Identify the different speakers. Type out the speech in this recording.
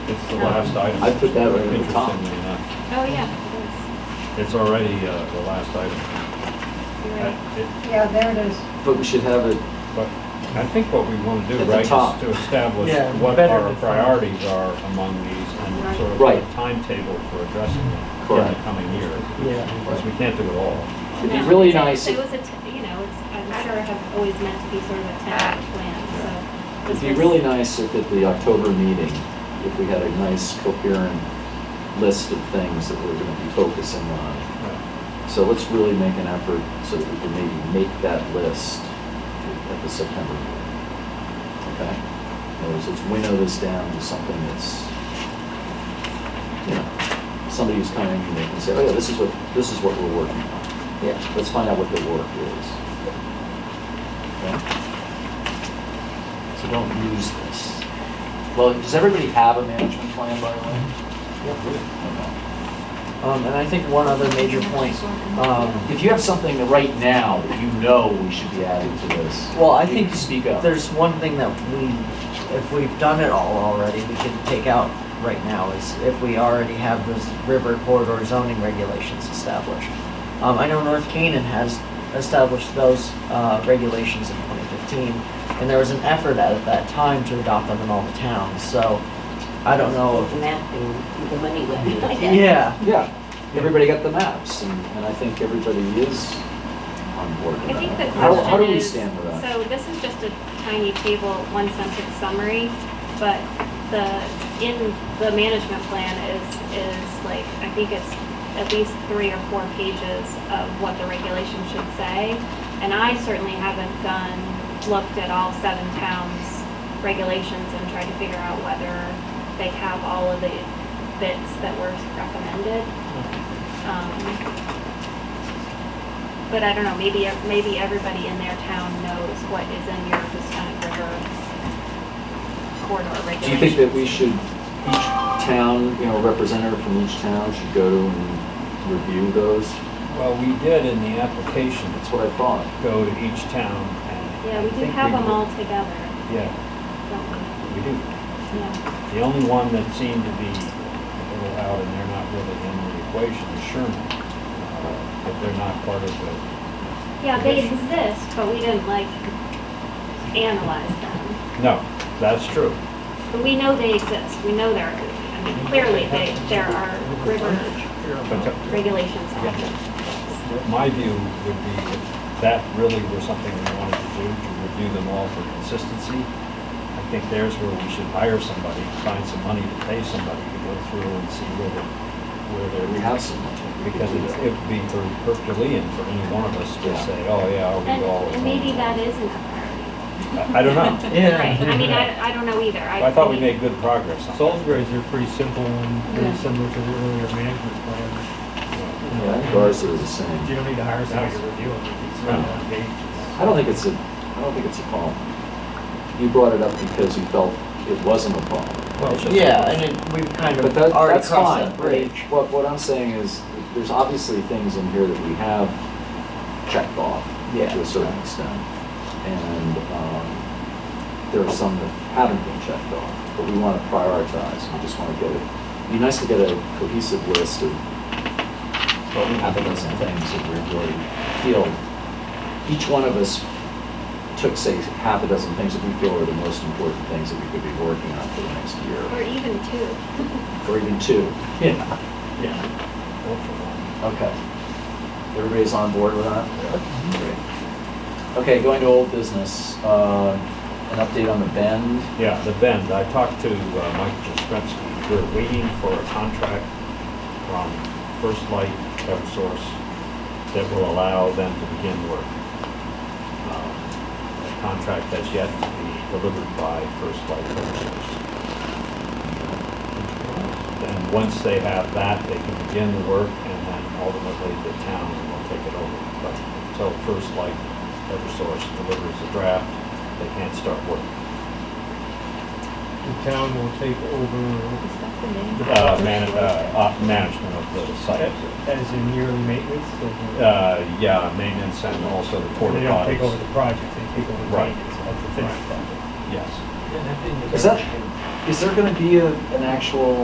Speaker 1: It's the last
Speaker 2: Um,
Speaker 1: item.
Speaker 3: I put that right at the top.
Speaker 1: Interestingly enough,
Speaker 2: Oh, yeah,
Speaker 1: It's already uh, the last item.
Speaker 2: it is. You're right.
Speaker 1: I- it-
Speaker 4: Yeah, there it is.
Speaker 3: But we should have it,
Speaker 1: But I think what we want to do,
Speaker 3: At the
Speaker 1: right, is
Speaker 3: top.
Speaker 1: to establish
Speaker 5: Yeah,
Speaker 1: what
Speaker 5: better
Speaker 1: our
Speaker 5: define.
Speaker 1: priorities are among these and
Speaker 2: Right.
Speaker 1: sort of
Speaker 3: Right.
Speaker 1: a timetable for addressing them in the
Speaker 3: Correct.
Speaker 1: coming year.
Speaker 5: Yeah.
Speaker 1: Because we can't do it all.
Speaker 3: it'd be
Speaker 2: No,
Speaker 3: really
Speaker 2: it's-
Speaker 3: nice,
Speaker 2: It
Speaker 3: it'd
Speaker 2: was a, t- you know, it's, I'm sure have always meant to be sort of a tentative plan, so. this
Speaker 3: be
Speaker 2: was-
Speaker 3: really nice if at the October meeting, if we had a nice coherent list of things that we're gonna be focusing on. So let's really make an effort so that we can maybe make that list at the September meeting. Okay? In other words, let's winnow this down to something that's, you know, somebody who's coming and they can say, oh yeah, this is what, this is what we're working on.
Speaker 5: Yeah.
Speaker 3: Let's find out what the work is. Okay? So don't lose this. Well, does everybody have a management plan, by the way? Okay.
Speaker 5: Um, and I think one other major point, um,
Speaker 3: If you have something that right now that you know we should be adding to this.
Speaker 5: well, I
Speaker 3: you
Speaker 5: think
Speaker 3: can Speak up.
Speaker 5: There's one thing that we, if we've done it all already, we can take out right now is if we already have those river corridor zoning regulations established. Um, I know North Canaan has established those, uh, regulations in twenty fifteen, and there was an effort at, at that time to adopt them in all the towns, so I don't know if.
Speaker 6: mapping the money would be.
Speaker 5: Yeah,
Speaker 3: Yeah, everybody got the maps, and, and I think everybody is on board with
Speaker 2: I
Speaker 3: that.
Speaker 2: think the
Speaker 3: How- How do
Speaker 2: question
Speaker 3: we
Speaker 2: is,
Speaker 3: stand with that?
Speaker 2: so this is just a tiny table, one sentence summary, but the, in the management plan is, is like, I think it's at least three or four pages of what the regulation should say. And I certainly haven't done, looked at all seven towns' regulations and tried to figure out whether they have all of the bits that were recommended. Um, but I don't know, maybe, maybe everybody in their town knows what is in your Houstonic River corridor regulations.
Speaker 3: Do you think that we should, each town, you know, representative from each town should go and review those?
Speaker 1: Well, we did in the application,
Speaker 3: That's what I thought.
Speaker 1: go to each town and.
Speaker 2: Yeah,
Speaker 1: I
Speaker 2: we do
Speaker 1: think
Speaker 2: have them
Speaker 1: did.
Speaker 2: all together,
Speaker 1: Yeah,
Speaker 2: don't we?
Speaker 1: we do.
Speaker 2: Yeah.
Speaker 1: The only one that seemed to be a little out, and they're not really in the equation, is Sherman. Uh, But they're not part of the,
Speaker 2: Yeah, they exist, but we didn't like analyze them.
Speaker 1: no, that's true.
Speaker 2: But we know they exist, we know there, are- I mean, clearly they, there are river
Speaker 1: But to-
Speaker 2: regulations on them.
Speaker 1: My view would be if that really were something we wanted to do, to review them all for consistency, I think there's where we should hire somebody, find some money to pay somebody to go through and see where they're, where they're.
Speaker 3: We have some.
Speaker 1: Because it's- it would be her- Herculean for any one of us to
Speaker 3: Yeah.
Speaker 1: say, oh, yeah,
Speaker 2: And,
Speaker 1: we all.
Speaker 2: and maybe that isn't a priority.
Speaker 1: I- I don't know.
Speaker 5: yeah.
Speaker 2: Right, I mean, I, I don't know either.
Speaker 1: I thought we made good progress on that.
Speaker 7: Salisbury's are pretty simple and pretty similar to the earlier management plan.
Speaker 3: Yeah, I think ours are the same.
Speaker 7: You don't need to hire somebody to review them. It's not on page.
Speaker 3: I don't think it's a, I don't think it's a problem. You brought it up because you felt it wasn't a problem.
Speaker 1: Well, it's just-
Speaker 5: Yeah, and it, we've kind
Speaker 3: But
Speaker 5: of
Speaker 3: that,
Speaker 5: already
Speaker 3: that's
Speaker 5: crossed
Speaker 3: fine.
Speaker 5: that bridge.
Speaker 3: What, what I'm saying is, there's obviously things in here that we have checked off
Speaker 5: Yeah.
Speaker 3: to a certain extent. And, um, there are some that haven't been checked off, but we want to prioritize. We just want to get it, it'd be nice to get a cohesive list of half a dozen things that we really feel. Each one of us took, say, half a dozen things that we feel are the most important things that we could be working on for the next
Speaker 2: Or
Speaker 3: year,
Speaker 2: even two.
Speaker 3: or even two. Yeah.
Speaker 1: Yeah. Vote for one.
Speaker 3: Okay. Everybody's on board with that? Great. Okay, going to old business, uh, an update on the bend.
Speaker 1: Yeah, the bend. I talked to uh, Mike Jastrzemski. We're waiting for a contract from First Light Eversource that will allow them to begin work. Um, A contract that's yet to be delivered by First Light Eversource. And once they have that, they can begin the work and then ultimately the town will take it over. But until First Light Eversource delivers the draft, they can't start work.
Speaker 7: The town will take over
Speaker 2: Is that the name?
Speaker 1: uh, man, uh, op- management of the site.
Speaker 7: as in yearly maintenance. so the-
Speaker 1: Uh, yeah, maintenance and also the porta
Speaker 7: They don't take over
Speaker 1: potties.
Speaker 7: the project, they take over the
Speaker 1: Right.
Speaker 7: maintenance of the finished project.
Speaker 1: Yes.
Speaker 3: Is that, Is there gonna be a, an actual